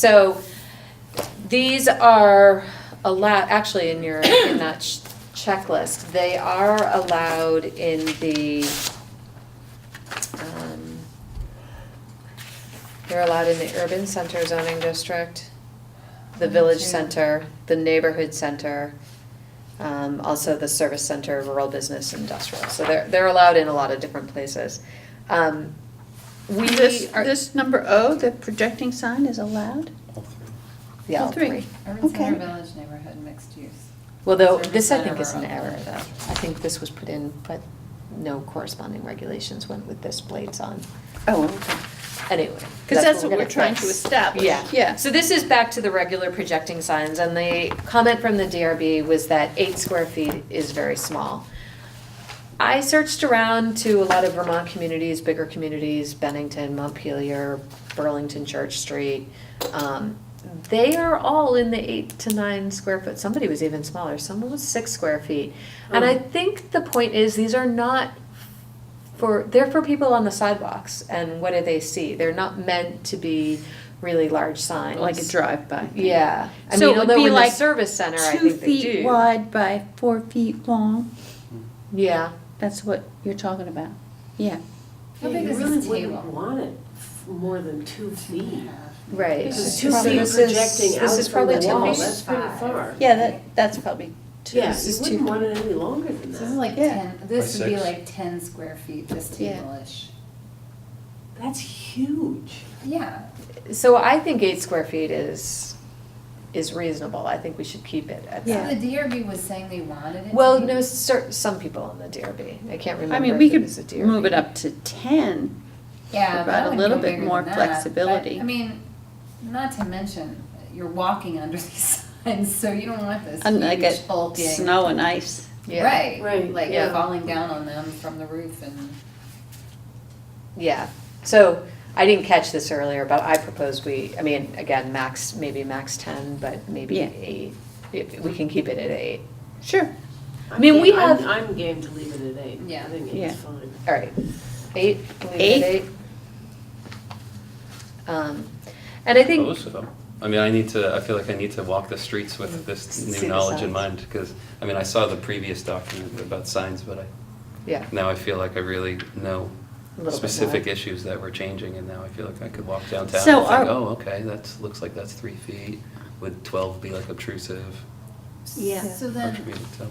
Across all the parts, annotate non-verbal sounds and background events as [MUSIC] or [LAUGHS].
So these are allowed, actually in your, in that ch- checklist, they are allowed in the, um, they're allowed in the urban center zoning district, the village center, the neighborhood center, um, also the service center, rural business, industrial. So they're, they're allowed in a lot of different places. Um, We This, are, this number O, the projecting sign is allowed? yeah, all three. Urban center, Okay. village, neighborhood, mixed use. Well, though, Service this I center think is an rural. error, though. I think this was put in, but no corresponding regulations went with this blades on. Oh, okay. Anyway. Because that's what we're gonna trying to fix. establish. Yeah. Yeah. So this is back to the regular projecting signs, and the comment from the DRB was that eight square feet is very small. I searched around to a lot of Vermont communities, bigger communities, Bennington, Montpelier, Burlington Church Street. Um, They are all in the eight to nine square foot, somebody was even smaller, someone was six square feet. And Oh. I think the point is, these are not for, they're for people on the sidewalks, and what do they see? They're not meant to be really large signs. Like a drive-by. Yeah, I So it mean, would although be in the like service center, I Two think they do. feet wide by four feet long, Yeah, that's what you're talking about. Yeah. How Yeah, big you is really this wouldn't table? want it f- more than two feet. right. Because It's two probably feet This is- projecting out This is from probably the two wall, feet. that's pretty far. Yeah, that, that's probably two, Yeah, this you is wouldn't two. want it any longer than This is that. like Yeah. ten, this By would be six. like ten square feet, this Yeah. table-ish. That's huge. Yeah, So I think eight square feet is, is reasonable, I think we should keep it at so Yeah. that. the DRB was saying they wanted it to Well, be- no, cer- some people on the DRB, I can't I remember mean, we if it could was a DRB. move it up to ten. Yeah, but I Provide a would little go bit bigger more than that, but, flexibility. I mean, not to mention, you're walking under [LAUGHS] these signs, so you don't want this And like huge it, bulking. snow and ice. Yeah. Right, Right, like yeah. falling down on them from the roof and. Yeah, so I didn't catch this earlier, but I propose we, I mean, again, max, maybe max ten, but maybe Yeah. eight. If, we can keep it at eight. Sure. I mean, I'm we ga- I'm- have- I'm game to leave it at eight. Yeah. I think Yeah. it's fine. All right, eight, leave it at Eight? eight. Um, and I think, Most of them. I mean, I need to, I feel like I need to walk the streets with this Mm. See the new knowledge signs. in mind, because, I mean, I saw the previous document about signs, but I, yeah, now I feel like I really know A little bit more. specific issues that were changing, and now I feel like I could walk downtown So and think, are- oh, okay, that's, looks like that's three feet. Would twelve be like obtrusive? Yeah. So Hard for me then, to tell.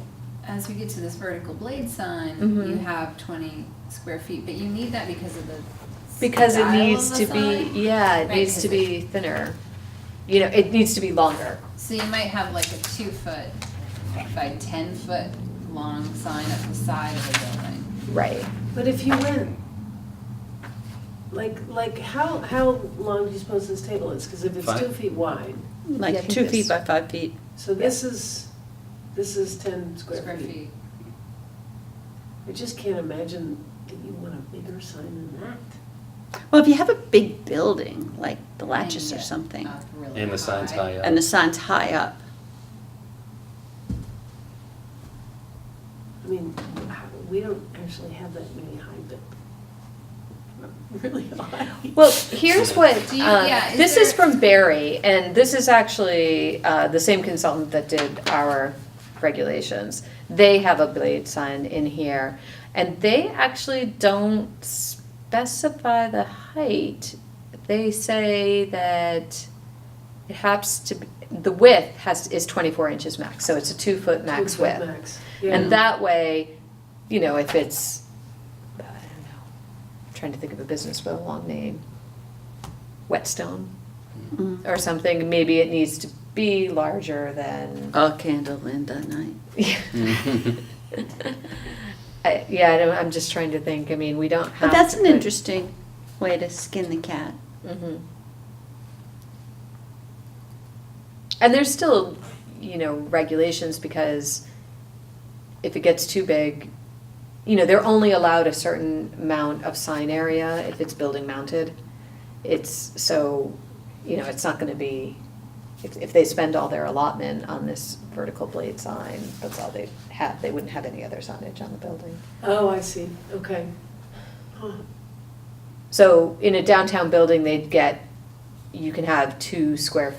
as we get to this vertical blade sign, Mhm. you have twenty square feet, but you need that because of the because it style needs of to the be, sign. yeah, it Right, needs 'cause to it- be thinner. You know, it needs to be longer. So you might have like a two foot by ten foot long sign up the side of the building. Right. But if you went, like, like, how, how long do you suppose this table is? Because if it's Five. two feet wide, Yeah, I Like think two feet this- by five feet. so this is, this is ten square feet. I just can't imagine that you want a bigger sign than that. Well, if you have a big building, like the Latches Hang or it something, up really And the signs high up. and the sign's high up, I mean, how- we don't actually have that many high build. [LAUGHS] Really high. Well, here's what, Do you- um, yeah, is this is there- from Barry, and this is actually uh, the same consultant that did our regulations. They have a blade sign in here, and they actually don't specify the height. They say that it has to, be the width has, is 24 inches max, so it's a two-foot max Two-foot width. Max, yeah. And that way, you know, if it's, I don't know, I'm trying to think of a business with a long name, Whetstone Mm. or something, maybe it needs to be larger than, all candle in the night. [LAUGHS] I, yeah, I don't, I'm just trying to think, I mean, we don't have. But that's to an put- interesting way to skin the cat. Mhm. And there's still, you know, regulations because if it gets too big, you know, they're only allowed a certain amount of sign area if it's building mounted. It's, so, you know, it's not gonna be, if, if they spend all their allotment on this vertical blade sign, that's all they have, they wouldn't have any other signage on the building. Oh, I see, okay. Huh. So in a downtown building, they'd get, you can have two square